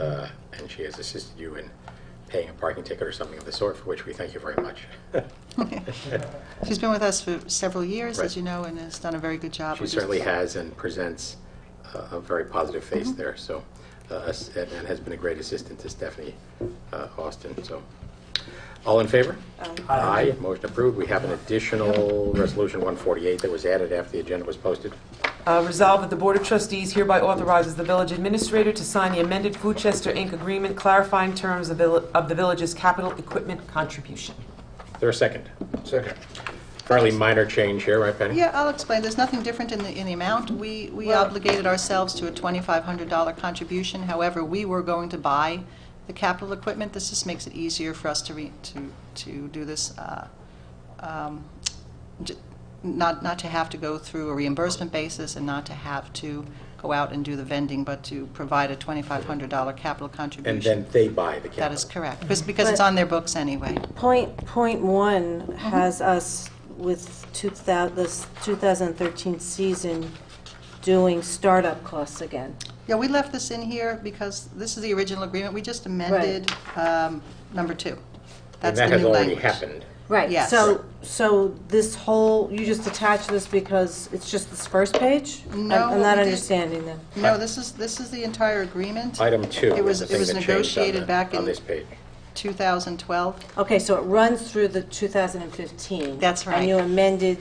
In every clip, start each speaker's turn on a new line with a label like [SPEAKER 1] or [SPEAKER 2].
[SPEAKER 1] uh, and she has assisted you in paying a parking ticket or something of the sort, for which we thank you very much.
[SPEAKER 2] She's been with us for several years,
[SPEAKER 1] Right.
[SPEAKER 2] as you know, and has done a very good job.
[SPEAKER 1] She
[SPEAKER 2] We're just-
[SPEAKER 1] certainly has and presents uh, a very positive face
[SPEAKER 2] Mm-hmm.
[SPEAKER 1] there, so, uh, us- and and has been a great assistant to Stephanie uh, Austin, so. All in favor? Aye. motion approved. We have an additional Resolution 148 that was added after the agenda was posted.
[SPEAKER 3] Uh, Resolved that the Board of Trustees hereby authorizes the village administrator to sign the amended Foodchester Inc. agreement clarifying terms of vil- of the village's capital equipment contribution.
[SPEAKER 1] Is there a second?
[SPEAKER 4] Second.
[SPEAKER 1] Fairly minor change here, right, Penny?
[SPEAKER 2] Yeah, I'll explain. There's nothing different in the, in the amount. We, we
[SPEAKER 3] Well-
[SPEAKER 2] obligated ourselves to a $2,500 contribution. However, we were going to buy the capital equipment. This just makes it easier for us to re, to, to do this, uh, um, j- not, not to have to go through a reimbursement basis and not to have to go out and do the vending, but to provide a $2,500 capital contribution.
[SPEAKER 1] And then they buy the
[SPEAKER 2] That is
[SPEAKER 1] capital.
[SPEAKER 2] correct, because, because it's
[SPEAKER 5] But-
[SPEAKER 2] on their books anyway.
[SPEAKER 5] Point, point one has us with 2000, this 2013 season doing startup costs again.
[SPEAKER 2] Yeah, we left this in here because this is the original agreement, we just amended um, number two.
[SPEAKER 1] And
[SPEAKER 2] That's the
[SPEAKER 1] that has
[SPEAKER 2] new
[SPEAKER 1] already
[SPEAKER 2] language.
[SPEAKER 1] happened.
[SPEAKER 5] Right.
[SPEAKER 2] Yes.
[SPEAKER 5] So, so this whole, you just attach this because it's just this first page? I'm-
[SPEAKER 2] No,
[SPEAKER 5] I'm
[SPEAKER 2] what
[SPEAKER 5] not
[SPEAKER 2] we did-
[SPEAKER 5] understanding that.
[SPEAKER 2] No, this is, this is the entire agreement,
[SPEAKER 1] Item two
[SPEAKER 2] It
[SPEAKER 1] was
[SPEAKER 2] was-
[SPEAKER 1] the
[SPEAKER 2] it
[SPEAKER 1] thing
[SPEAKER 2] was
[SPEAKER 1] that changed on
[SPEAKER 2] negotiated back
[SPEAKER 1] the- on
[SPEAKER 2] in-
[SPEAKER 1] this page.
[SPEAKER 2] 2012,
[SPEAKER 5] Okay, so it runs through the 2015.
[SPEAKER 2] That's right.
[SPEAKER 5] And you amended,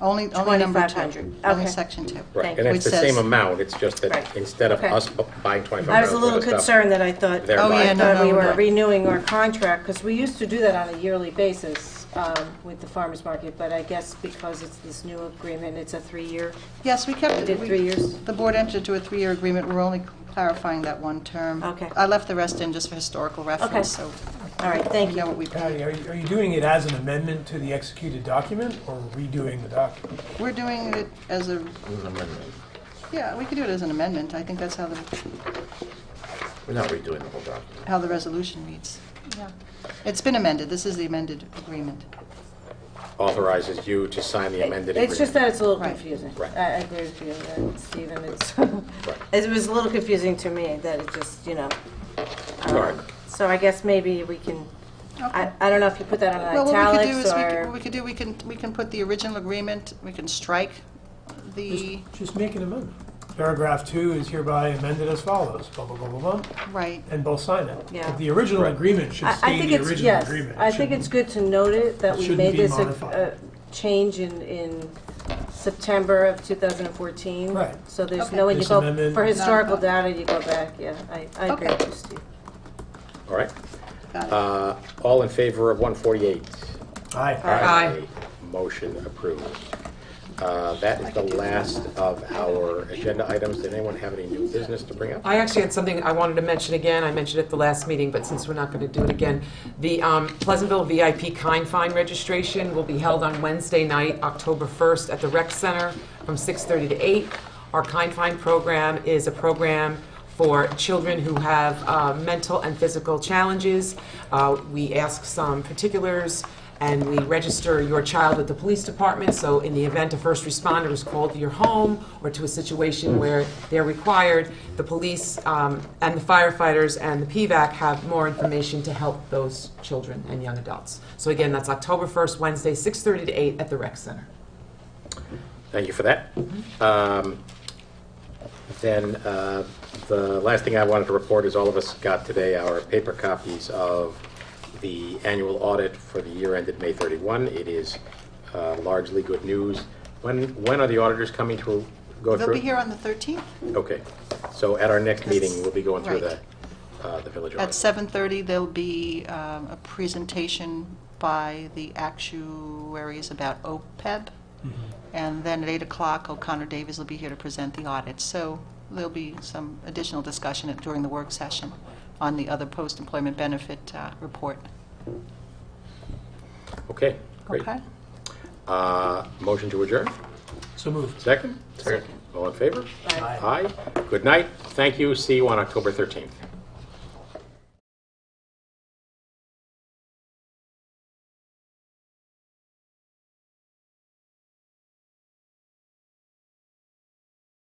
[SPEAKER 2] only, only number two.
[SPEAKER 5] 2500,
[SPEAKER 2] Only
[SPEAKER 5] okay.
[SPEAKER 2] section two.
[SPEAKER 1] Right,
[SPEAKER 5] Thank
[SPEAKER 1] and
[SPEAKER 5] you.
[SPEAKER 1] it's the
[SPEAKER 2] Which
[SPEAKER 1] same
[SPEAKER 2] says-
[SPEAKER 1] amount, it's just that
[SPEAKER 5] Right.
[SPEAKER 1] instead of
[SPEAKER 5] Okay.
[SPEAKER 1] us bu- buying $25
[SPEAKER 5] I was a
[SPEAKER 1] worth
[SPEAKER 5] little
[SPEAKER 1] of stuff-
[SPEAKER 5] concerned that I thought,
[SPEAKER 1] They're
[SPEAKER 2] Oh, yeah, no,
[SPEAKER 5] I
[SPEAKER 2] no,
[SPEAKER 5] thought we
[SPEAKER 2] no.
[SPEAKER 5] were renewing our contract, because we used to do that on a yearly basis um, with the farmer's market, but I guess because it's this new agreement, it's a three-year,
[SPEAKER 2] Yes, we kept it.
[SPEAKER 5] did
[SPEAKER 2] We-
[SPEAKER 5] three years?
[SPEAKER 2] The board entered into a three-year agreement, we're only clarifying that one term.
[SPEAKER 5] Okay.
[SPEAKER 2] I left the rest in just for historical reference, so
[SPEAKER 5] All right,
[SPEAKER 2] we
[SPEAKER 5] thank
[SPEAKER 2] know
[SPEAKER 5] you.
[SPEAKER 2] what we paid.
[SPEAKER 4] Patty, are you, are you doing it as an amendment to the executed document or redoing the document?
[SPEAKER 2] We're doing it as a,
[SPEAKER 6] It was an amendment.
[SPEAKER 2] yeah, we could do it as an amendment, I think that's how the,
[SPEAKER 6] We're not redoing the whole document.
[SPEAKER 2] how the resolution reads. Yeah. It's been amended, this is the amended agreement.
[SPEAKER 1] authorizes you to sign the amended agreement.
[SPEAKER 5] It's just that it's a little
[SPEAKER 2] Right.
[SPEAKER 5] confusing. I
[SPEAKER 1] Right.
[SPEAKER 5] I agree with you, uh, Stephen, it's, it was a little confusing to me that it just, you know. um,
[SPEAKER 1] Sorry.
[SPEAKER 5] So I guess maybe we can, I
[SPEAKER 2] Okay.
[SPEAKER 5] I don't know if you put that
[SPEAKER 2] Well,
[SPEAKER 5] on
[SPEAKER 2] what we could do
[SPEAKER 5] italics
[SPEAKER 2] is, we could- what
[SPEAKER 5] or,
[SPEAKER 2] we could do, we can, we can put the original agreement, we can strike the,
[SPEAKER 4] Just make an amendment. Paragraph two is hereby amended as follows, blah, blah, blah, blah, blah,
[SPEAKER 2] right,
[SPEAKER 4] and both sign it.
[SPEAKER 5] Yeah.
[SPEAKER 4] But the original agreement should
[SPEAKER 5] I I
[SPEAKER 4] stay
[SPEAKER 5] think
[SPEAKER 4] the
[SPEAKER 5] it's,
[SPEAKER 4] original
[SPEAKER 5] yes,
[SPEAKER 4] agreement. It
[SPEAKER 5] I think
[SPEAKER 4] shouldn't-
[SPEAKER 5] it's good to note it, that we
[SPEAKER 4] shouldn't
[SPEAKER 5] made
[SPEAKER 4] be
[SPEAKER 5] this a-
[SPEAKER 4] modified.
[SPEAKER 5] a change in, in September of 2014.
[SPEAKER 4] Right.
[SPEAKER 5] So there's
[SPEAKER 2] Okay.
[SPEAKER 5] no, way you
[SPEAKER 4] This
[SPEAKER 5] go,
[SPEAKER 4] amendment-
[SPEAKER 5] for historical
[SPEAKER 2] Not-
[SPEAKER 5] data, you go back, yeah, I I agree
[SPEAKER 2] Okay.
[SPEAKER 5] with you, Steve.
[SPEAKER 1] All right.
[SPEAKER 2] got it.
[SPEAKER 1] Uh, All in favor of 148?
[SPEAKER 4] Aye.
[SPEAKER 3] Aye.
[SPEAKER 1] Motion approved. Uh, That is the last of our agenda items. Did anyone have any new business to bring up?
[SPEAKER 3] I actually had something I wanted to mention again. I mentioned it at the last meeting, but since we're not going to do it again, the um, Pleasantville VIP Kind Find registration will be held on Wednesday night, October 1st, at the Rec Center from 6:30 to 8. Our Kind Find program is a program for children who have uh, mental and physical challenges. Uh, We ask some particulars and we register your child with the police department, so in the event a first responder is called to your home or to a situation where they're required, the police um, and the firefighters and the PVAC have more information to help those children and young adults. So again, that's October 1st, Wednesday, 6:30 to 8 at the rec center.
[SPEAKER 1] Thank you for that. Um, Then, uh, the last thing I wanted to report is all of us got today our paper copies of the annual audit for the year ended May 31. It is uh, largely good news. When, when are the auditors coming to go through?
[SPEAKER 2] They'll be
[SPEAKER 1] it?
[SPEAKER 2] here on the 13th
[SPEAKER 1] Okay. So at our next meeting, we'll be going through the,
[SPEAKER 2] Right.
[SPEAKER 1] uh, the village
[SPEAKER 2] at
[SPEAKER 1] audit.
[SPEAKER 2] 7:30, there'll be um, a presentation by the actuaries about OPEB, and then at 8 o'clock, O'Connor Davies will be here to present the audit. So there'll be some additional discussion at- during the work session on the other post-employment benefit uh, report.
[SPEAKER 1] Okay, great.
[SPEAKER 2] Okay?
[SPEAKER 1] Uh, Motion to adjourn,
[SPEAKER 4] So moved.
[SPEAKER 1] second? Second. All in favor?
[SPEAKER 4] Aye.
[SPEAKER 1] Aye. Good night, thank you, see you on October 13th.